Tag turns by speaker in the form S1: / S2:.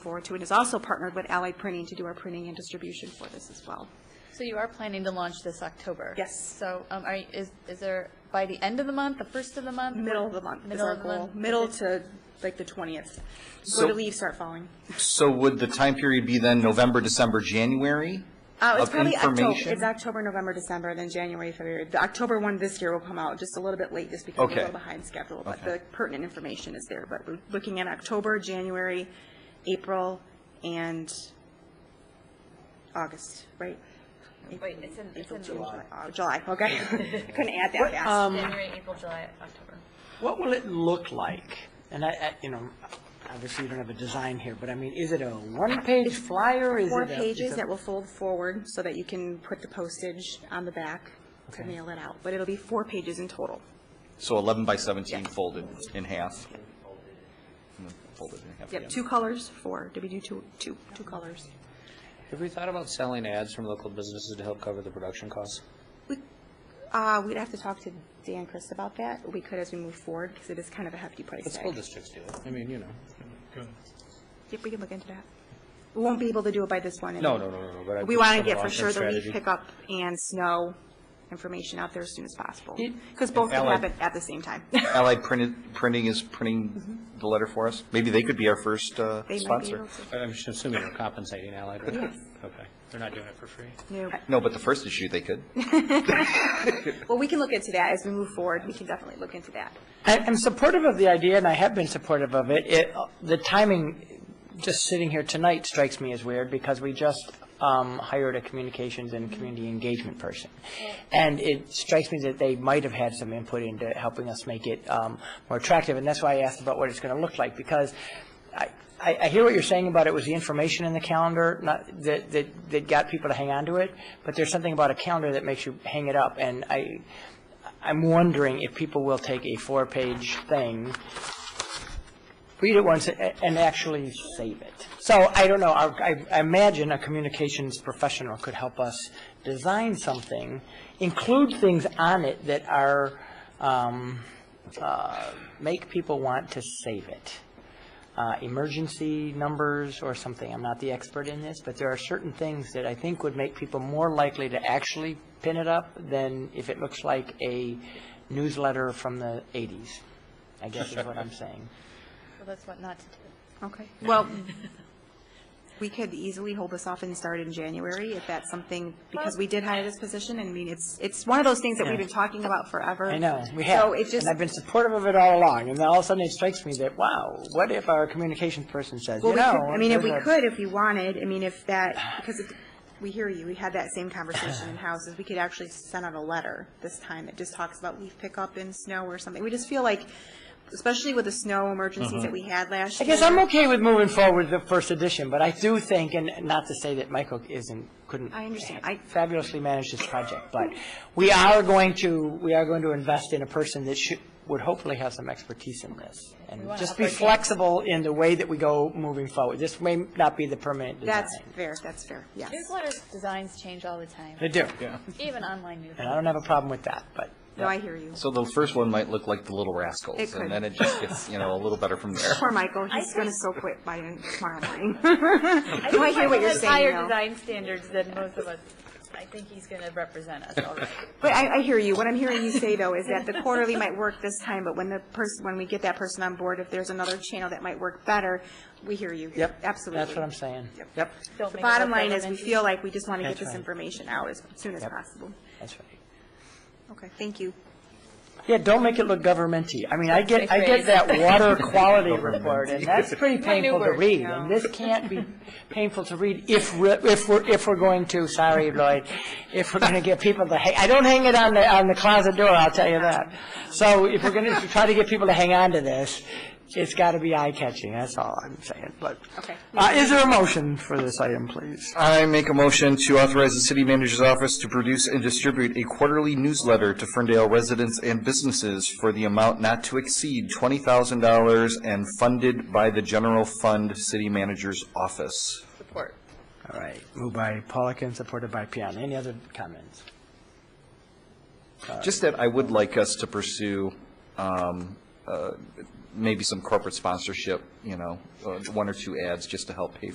S1: forward to, and is also partnered with Allied Printing to do our printing and distribution for this as well.
S2: So you are planning to launch this October?
S1: Yes.
S2: So um, are, you- is, is there, by the end of the month, the first of the month?
S1: Middle of the month is
S2: Middle
S1: our
S2: of the
S1: goal,
S2: month.
S1: middle to like the 20th. Go
S3: So-
S1: to leave, start falling.
S3: So would the time period be then November, December, January?
S1: Uh, it's
S3: of
S1: probably October,
S3: information?
S1: it's October, November, December, then January, February. The October one this year will come out just a little bit late, just because we're a
S3: Okay.
S1: little behind schedule, but
S3: Okay.
S1: the pertinent information is there. But we're looking at October, January, April, and August, right?
S2: Wait, it's in, it's
S1: April,
S2: in
S1: June, July, Oh, July, okay. Couldn't add that fast.
S3: um,
S2: January, April, July, October.
S4: What will it look like? And I, I, you know, obviously you don't have a design here, but I mean, is it a one-page flyer? Is
S1: Four
S4: it a-
S1: pages
S4: is it-
S1: that will fold forward so that you can put the postage on the back to
S4: Okay.
S1: mail it out, but it'll be four pages in total.
S3: So 11 by 17 folded in half. And then Folded in half
S1: Yep,
S3: again.
S1: two colors, four, did we do two, two, two colors?
S5: Have we thought about selling ads from local businesses to help cover the production costs?
S1: We, uh, we'd have to talk to Dan Chris about that, we could as we move forward, because it is kind of a hefty price
S5: But school
S1: tag.
S5: districts do it. I mean, you know.
S1: Yep, we can look into that. We won't be able to do it by this one.
S5: No, no, no, no, no, but I
S1: We
S5: think
S1: want to
S5: some
S1: get for
S5: long-term
S1: sure the leaf
S5: strategy.
S1: pickup and snow information out there as soon as possible,
S4: Did-
S1: because both can
S3: Allied-
S1: happen at the same time.
S3: Allied Printed- Printing is printing the letter for us. Maybe they could be our first uh,
S1: Mm-hmm. They might be
S3: sponsor.
S1: able to.
S5: I'm just assuming they're compensating Allied, right?
S1: Yes.
S5: Okay. They're not doing it for free.
S1: No.
S3: No, but the first issue they could.
S1: Well, we can look into that as we move forward. We can definitely look into that.
S4: I- I'm supportive of the idea, and I have been supportive of it. It, the timing, just sitting here tonight strikes me as weird, because we just um, hired a communications and community engagement person. And it strikes me that they might have had some input into helping us make it um, more attractive, and that's why I asked about what it's going to look like, because I, I I hear what you're saying about it was the information in the calendar, not, that, that, that got people to hang on to it, but there's something about a calendar that makes you hang it up, and I, I'm wondering if people will take a four-page thing, read it once, a- and actually save it. So I don't know, I I imagine a communications professional could help us design something, include things on it that are, um, uh, make people want to save it. Uh, Emergency numbers or something, I'm not the expert in this, but there are certain things that I think would make people more likely to actually pin it up than if it looks like a newsletter from the 80s, I guess is what I'm saying.
S2: Well, that's what not to do.
S1: Okay. Well, we could easily hold this off and start in January if that's something, because we did hire this position, and I mean, it's, it's one of those things that we've been talking about forever.
S4: I know, we have.
S1: So it just,
S4: And I've been supportive of it all along, and then all of a sudden it strikes me that, wow, what if our communications person says,
S1: well,
S4: you
S1: we could,
S4: know?
S1: I mean, if we
S4: there's a-
S1: could, if we wanted, I mean, if that, because it- we hear you, we had that same conversation in houses, we could actually send out a letter this time that just talks about leaf pickup in snow or something. We just feel like, especially with the snow emergencies that we had last
S4: Uh-huh. I
S1: year.
S4: guess I'm okay with moving forward the first edition, but I do think, and not to say that Michael isn't, couldn't.
S1: I understand. I-
S4: Fabulously manage this project, but we are going to, we are going to invest in a person that should, would hopefully have some expertise in this. And
S2: wanna
S4: just
S2: up
S4: be
S2: our game.
S4: flexible in the way that we go moving forward. This may not be the permanent design.
S1: That's fair, that's fair, yes.
S2: Newsletters, designs change all the time,
S4: They do,
S2: even online
S4: and
S2: newsletters.
S4: I don't have a problem with that, but.
S1: No, I hear you.
S3: So the first one might look like the Little Rascals.
S1: It could.
S3: And then it just gets, you know, a little better from there.
S1: Poor Michael, he's going to so quit by tomorrow morning. No, I hear what you're
S2: He has higher
S1: saying, though.
S2: design standards than most of us. I think he's going to represent us all right.
S1: But I, I hear you. What I'm hearing you say, though, is that the quarterly might work this time, but when the person, when we get that person on board, if there's another channel that might work better, we hear you.
S4: Yep.
S1: Absolutely.
S4: That's what I'm saying.
S1: Yep.
S2: Don't
S1: The
S2: make it
S1: bottom
S2: look
S1: line is, we
S2: elementary.
S1: feel like we just want to get
S4: That's
S1: this
S4: right.
S1: information out as soon as
S4: Yep.
S1: possible.
S4: That's right.
S1: Okay, thank you.
S4: Yeah, don't make it look governmenty. I mean, I get, I get
S2: That's
S4: that water quality report, and that's pretty painful to
S2: word,
S4: read. And this can't be painful to read if, we're- if we're, if we're going to, sorry, Lloyd, if we're going to get people to hang, I don't hang it on the, on the closet door, I'll tell you that. So if we're going to try to get people to hang on to this, it's got to be eye-catching, that's all I'm saying, but.
S1: Okay.
S4: Uh, is there a motion for this item, please?
S3: I make a motion to authorize the city manager's office to produce and distribute a quarterly newsletter to Ferndale residents and businesses for the amount not to exceed twenty thousand dollars and funded by the general fund city manager's office.
S2: Support.
S4: All right, moved by Pollock and supported by Piana. Any other comments?
S3: Just that I would like us to pursue um, uh, maybe some corporate sponsorship, you know, uh, one or two ads just to help pay